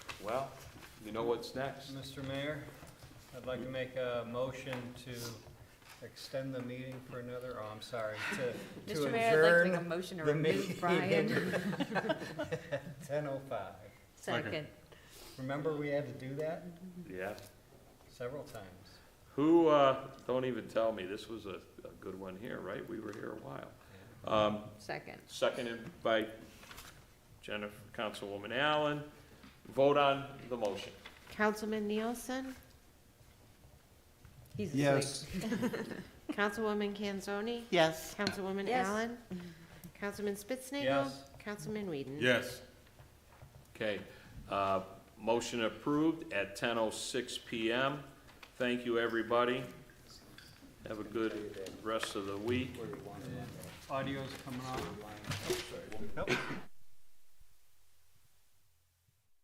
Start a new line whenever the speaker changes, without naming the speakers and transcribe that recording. Well, you know what's next.
Mr. Mayor, I'd like to make a motion to extend the meeting for another, oh, I'm sorry, to, to
Mr. Mayor, I'd like to make a
adjourn
motion to
the
remove Brian.
meeting. Ten oh five.
Second.
Remember, we had to do that
Yeah.
several times.
Who, uh, don't even tell me, this was a, a good one here, right? We were here a while. Um,
Second.
seconded by Jennifer, Councilwoman Allen. Vote on the motion.
Councilman Nielsen?
He's asleep.
Yes.
Councilwoman Kanzoni?
Yes.
Councilwoman
Yes.
Allen? Councilman Spitznagel,
Yes.
Councilman Whedon?
Yes.
Okay, uh, motion approved at ten oh six PM. Thank you, everybody. Have a good rest of the week.
Audio's coming on.